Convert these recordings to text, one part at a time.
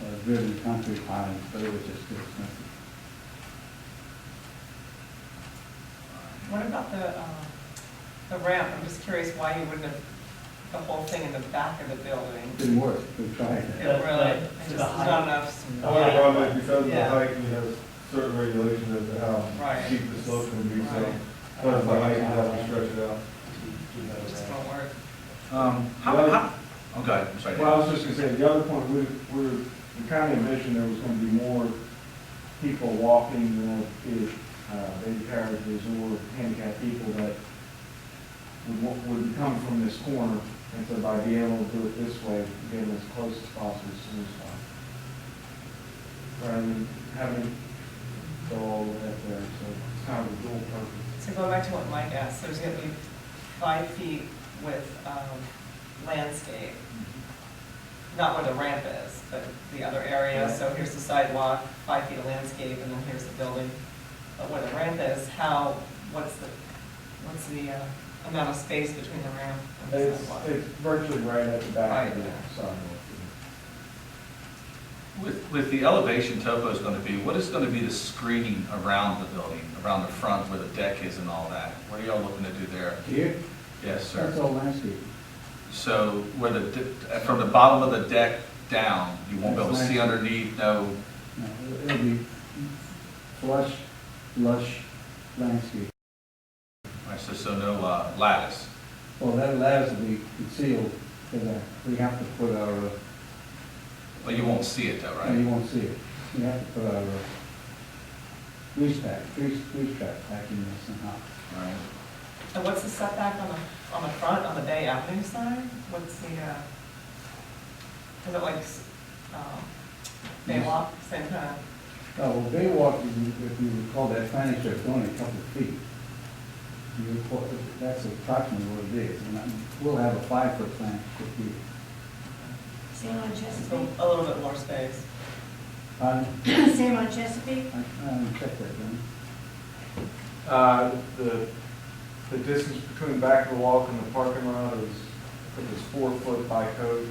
uh, driven country pies, but it was just too expensive. What about the, uh, the ramp? I'm just curious why you wouldn't have the whole thing in the back of the It building. didn't work, we tried It That's it. really, I the- to just, the there's not height. enough. The One height. problem is because of the Yeah. height, we have certain regulations as to Right. how steep the slope can be, so Right. because of the height, you have to stretch it out. It just won't work. Um, How, how, oh, go ahead, I'm sorry. Well, I was just gonna say, the other point, we, we, the county mentioned there was gonna be more people walking, you know, if, uh, baby carriages or handicapped people that would, wa- would come from this corner, and so by being able to do it this way, get them as close as possible as soon as possible. Rather than having go all the way up there, so it's kind of a dual purpose. So going back to what Mike asked, there's gonna be five feet with, um, landscape. Not where the ramp is, but the other area, so here's the sidewalk, five feet of landscape, and then here's the building. But where the ramp is, how, what's the, what's the, uh, amount of space between the ramp and the It's, sidewalk? it's virtually right at the back of the Right. sidewalk. With, with the elevation topo is gonna be, what is gonna be the screening around the building, around the front where the deck is and all that? What are y'all looking to do there? Here, Yes, that's sir. all landscape. So where the, de- from the bottom of the deck down, you won't be able to see underneath, no, No, it'll- it'll be lush, lush landscape. right, so, so no uh, lattice. Well, that allows to be concealed, because we have to put our, uh, Well, you won't see it though, No, you right? won't see it. You have to put our uh, grease pack, grease, grease trap back in there somehow. Right. And what's the setback on the, on the front, on the Bay Avenue side? What's the, uh, is it like, s- um, Baywalk, same kind of? Oh, well, Baywalk, if you- if you recall, that planning strip, it's only a couple of feet. You recall, that's approximately what it is, and I'm- we'll have a five-foot plan strip here. Same on Just a Chesapeake? a little bit more space. I, Same on Chesapeake? I, I checked that, didn't Uh, The, the distance between the back of the walk and the parking lot is, I think it's four foot by code,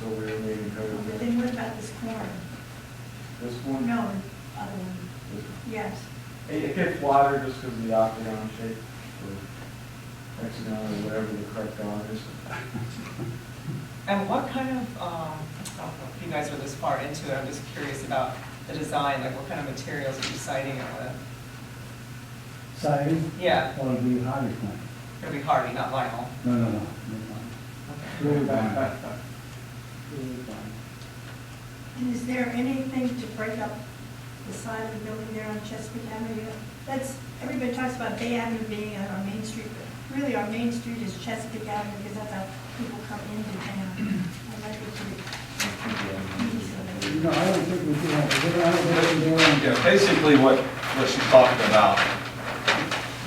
so we are meeting code again. Then what about this corner? This one? No, other one, This one. yes. It it gets wider just because of the octagon shape, or hexagon, or whatever the correct dog is. And what kind of, um, I don't know if you guys are this far into it, I'm just curious about the design, like what kind of materials are you siding it with? I? Siding? Yeah. Or it'll be hardy plank? It'll be hardy, not vinyl. No, no, no, no, Okay. no. Really fine. Really fine. And is there anything to break up the side of the building there on Chesapeake Avenue? That's, everybody talks about Bay Avenue being on our main street, but really our main street is Chesapeake Avenue because that's how people come into town. I'd like it to be easy. No, I don't think we do have, I don't think we're doing. Yeah, basically what, what she's talking about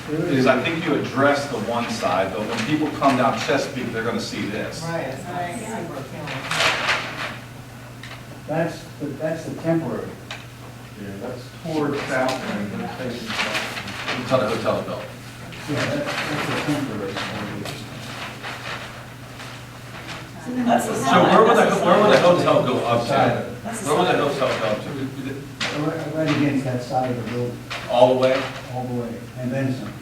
There is I think you address the one side, but when people come down Chesapeake, they're gonna see this. Right, it's not Yeah. super appealing. That's, the- that's the temporary. Yeah, that's toward south end, but it's facing south. Tell the hotel bill. Yeah, that's, that's the temporary. So then That's the we'll So have- where would the, where would the hotel go up Side. to? Where would the hotel go to? Right- Right against that side of the building, All the way? all the way, and then some.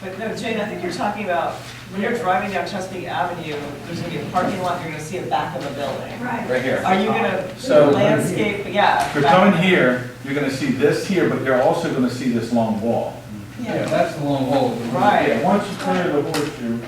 But no, Jane, I think you're talking about, when you're driving down Chesapeake Avenue, there's gonna be a parking lot, you're gonna see a back of a building. Right. Right here. Are you gonna So- um, landscape, yeah. If you're coming here, you're gonna see this here, but you're also gonna see this long wall. Yeah, that's the long hole. Yeah, Right, once you clear the horseshoe,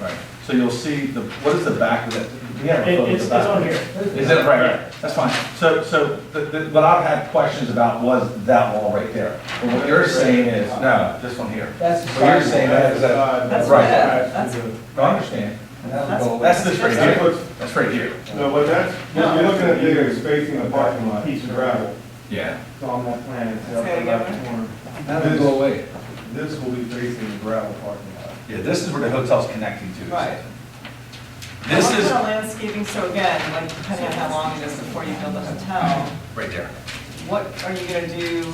Right. So you'll see the, what is the back of that? We have a It- photo of It's, the it's back. on here. Is it, right, right, that's fine. So, so, the, the, what I've had questions about was that wall right there. But what you're saying is, no, this one here. That's the What you're side. saying is that, That's right. red, that's- No, I understand. And that'll go away. That's this right here, that's right here. no, but that's, what you're looking at there is facing the parking lot, piece of gravel. Yeah. It's on that plan, it's Say it up again. that corner. That'll go away. This will be facing the gravel parking lot. Yeah, this is where the hotel's connecting to. Right. This What is, kind of landscaping, so again, like depending on how long it is before you build the hotel, right there. what are you gonna do,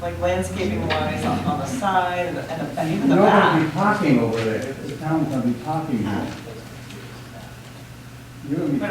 like landscaping wise on, on the side and the- and the, and even the You're gonna be back? parking over there, the town's gonna be parking there. You're gonna be. But